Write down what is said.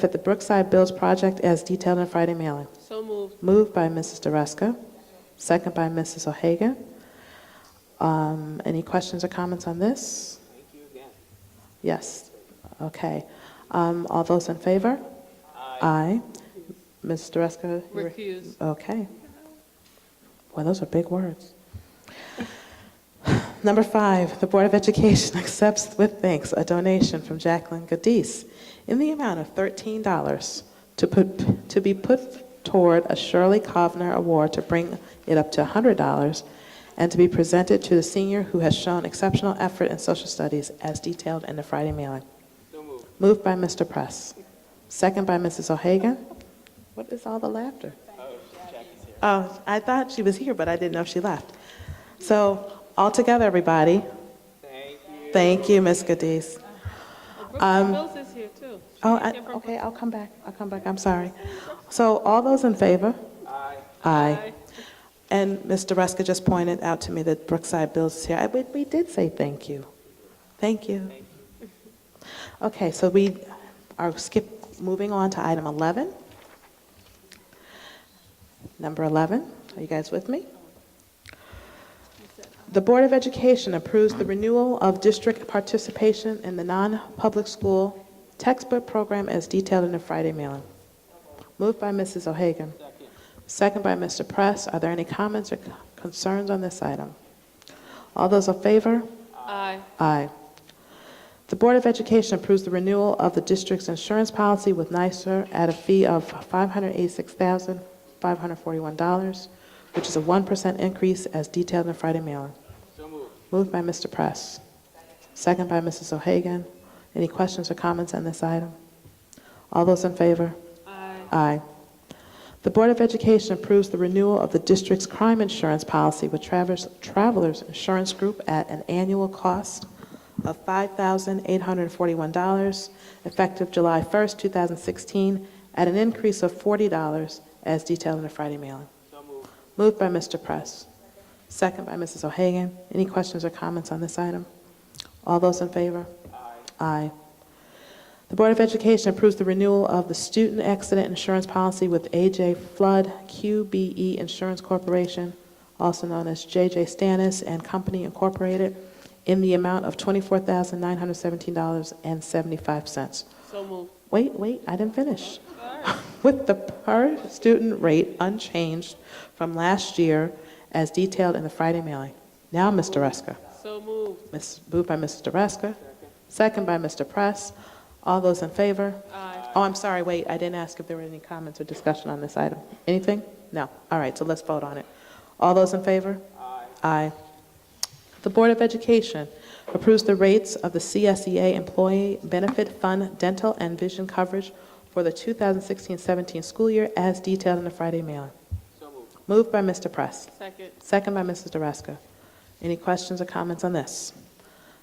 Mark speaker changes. Speaker 1: That the Brookside Bills project as detailed in Friday mailing.
Speaker 2: So moved.
Speaker 1: Moved by Mrs. DeRusco, second by Mrs. O'Hagan. Um, Any questions or comments on this?
Speaker 2: Thank you again.
Speaker 1: Yes, okay. Um, All those in favor? Aye. Mrs. DeRusco? you re-
Speaker 2: Recuse.
Speaker 1: Okay. Well, those are big words. Number five, the Board of Education accepts with thanks a donation from Jacqueline Gadis in the amount of $13 to put, to be put toward a Shirley Kovner Award to bring it up to $100 and to be presented to the senior who has shown exceptional effort in social studies as detailed in the Friday mailing.
Speaker 2: So moved.
Speaker 1: Moved by Mr. Press. Second by Mrs. O'Hagan. What is all the laughter? Oh, I thought she was here, but I didn't know if she left. So, all together, everybody,
Speaker 2: Thank you.
Speaker 1: thank you, Ms. Cadiz.
Speaker 2: Brooklyn Mills is here too.
Speaker 1: Oh, I- okay, I'll come back, I'll come back, I'm sorry. So, all those in favor?
Speaker 2: Aye.
Speaker 1: Aye. And Mr. Ruska just pointed out to me that Brookside Bills is here. I- We we did say thank you. Thank you. Okay, so we are skip, moving on to item 11. Number 11, are you guys with me? The Board of Education approves the renewal of district participation in the non-public school textbook program as detailed in the Friday mailing. Moved by Mrs. O'Hagan. Second by Mr. Press. Are there any comments or concerns on this item? All those in favor?
Speaker 2: Aye.
Speaker 1: Aye. The Board of Education approves the renewal of the district's insurance policy with NYSER at a fee of $586,541, which is a 1% increase as detailed in the Friday mailing.
Speaker 2: So moved.
Speaker 1: Moved by Mr. Press. Second by Mrs. O'Hagan. Any questions or comments on this item? All those in favor?
Speaker 2: Aye.
Speaker 1: Aye. The Board of Education approves the renewal of the district's crime insurance policy with Travers- Travelers Insurance Group at an annual cost of $5,841, effective July 1st, 2016, at an increase of $40, as detailed in the Friday mailing.
Speaker 2: So moved.
Speaker 1: Moved by Mr. Press. Second by Mrs. O'Hagan. Any questions or comments on this item? All those in favor? Aye. The Board of Education approves the renewal of the student accident insurance policy with AJ Flood QBE Insurance Corporation, also known as JJ Stannis and Company Incorporated, in the amount of $24,917.75.
Speaker 2: So moved.
Speaker 1: Wait, wait, I didn't finish. With the per student rate unchanged from last year as detailed in the Friday mailing. Now, Ms. Dreska.
Speaker 2: So moved.
Speaker 1: Ms. Moved by Mr. Dreska, second by Mr. Press. All those in favor?
Speaker 2: Aye.
Speaker 1: Oh, I'm sorry, wait, I didn't ask if there were any comments or discussion on this item. Anything? No. All right, so let's vote on it. All those in favor? Aye. Aye. The Board of Education approves the rates of the CSEA Employee Benefit Fund dental and vision coverage for the 2016-17 school year as detailed in the Friday mailing.
Speaker 2: So moved.
Speaker 1: Moved by Mr. Press.
Speaker 2: Second.
Speaker 1: Second by Mrs. DeRusco. Any questions or comments on this?